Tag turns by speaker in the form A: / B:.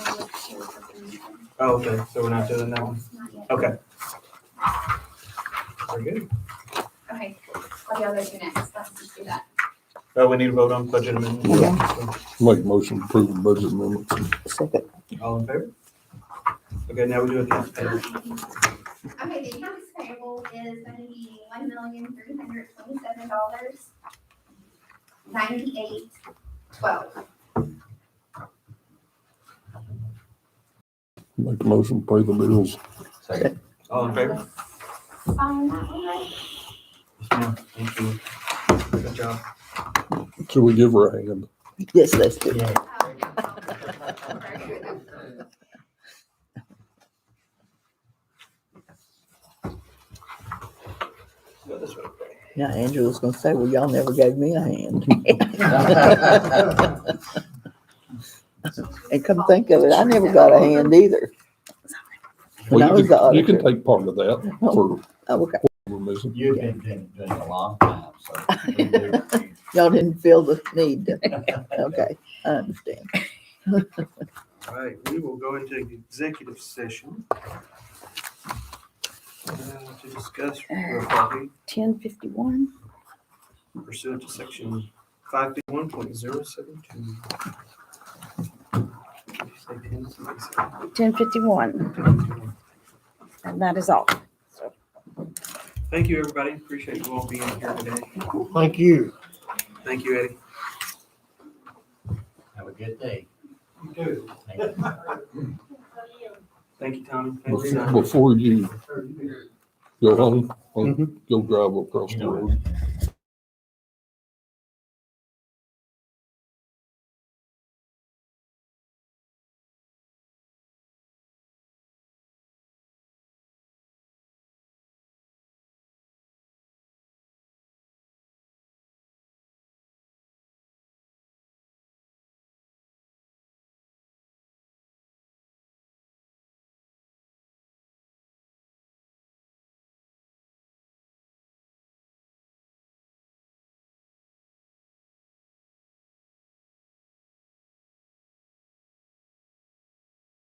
A: Oh, okay, so we're not doing that one?
B: Not yet.
A: Okay. Very good.
B: Okay, I'll do other two next. Um, Let's just do that.
A: Uh, we need to vote on budget amendment.
C: Make a motion to approve the budget amendments.
D: Second.
A: All in favor? Okay, now we do accounts payable.
B: Okay, the accounts payable is gonna be one million three hundred twenty-seven dollars ninety-eight twelve.
C: Make a motion to pay the bills.
E: Second.
A: All in favor?
B: Um, that one, right?
A: Yes, ma'am. Thank you. Good job.
C: Should we give her a hand?
D: Yes, let's do it.
B: Oh, yeah. Very good.
A: Go this way.
D: Now Andrew was gonna say, well, y'all never gave me a hand. And come think of it, I never got a hand either. When I
C: Well,
D: was
C: you
D: the
C: can, you can
D: auditor.
C: take part of that for,
D: Oh, okay.
C: we're missing.
E: You've been doing it a long time, so. we do-
D: Y'all didn't feel the need. Okay, I understand.
A: All right, we will go into executive session. uh, To discuss real property
F: ten fifty-one.
A: pursuant to section five fifty one point zero seven two.
F: Ten fifty-one, and that is all.
A: Thank you, everybody. Appreciate you all being here today.
G: Thank you.
A: Thank you, Eddie.
E: Have a good day.
A: You too.
E: Thank you.
A: Thank you, Tommy. Thank you,
C: Bef-
A: Simon.
D: Mm-hmm.
C: Before you go home, uh, go drive across
E: You
C: the
E: know
C: road.
E: it.